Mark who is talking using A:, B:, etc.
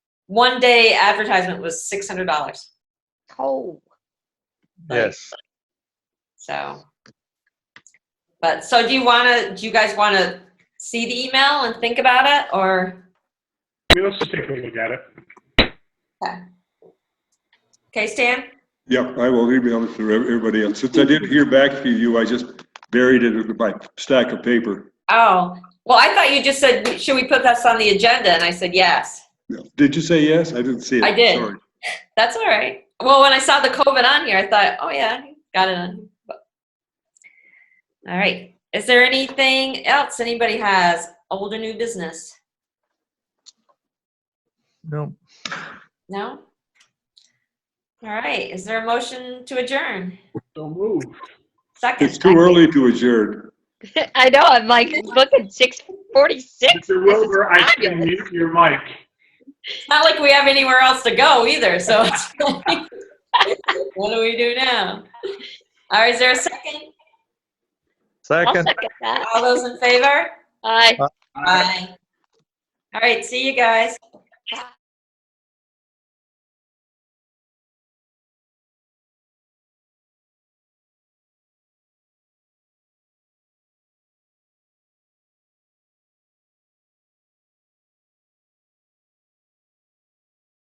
A: one day advertisement was six hundred dollars.
B: Oh,
C: Yes.
A: So. But, so do you wanna, do you guys wanna see the email and think about it, or,
D: I mean, let's just take a look at it.
A: okay, Stan?
E: Yep, I will email it to everybody else. Since I didn't hear back from you, I just buried it in my stack of paper.
A: Oh, well, I thought you just said, should we put this on the agenda? And I said, yes.
E: Did you say yes? I didn't see it.
A: I did.
E: Sorry.
A: That's all right. Well, when I saw the COVID on here, I thought, oh yeah, got it on. But- All right. Is there anything else anybody has? Old or new business?
C: No.
A: No? All right. Is there a motion to adjourn?
D: So move.
A: Second.
E: It's too early to adjourn.
B: I know, I'm like, looking six forty-six.
D: Mr. Wilbur, I can mute your mic.
A: It's not like we have anywhere else to go either. So it's like, what do we do now? All right. Is there a second?
B: I'll
C: Second.
B: second that.
A: All those in favor?
B: Aye.
A: Bye. All right. See you guys.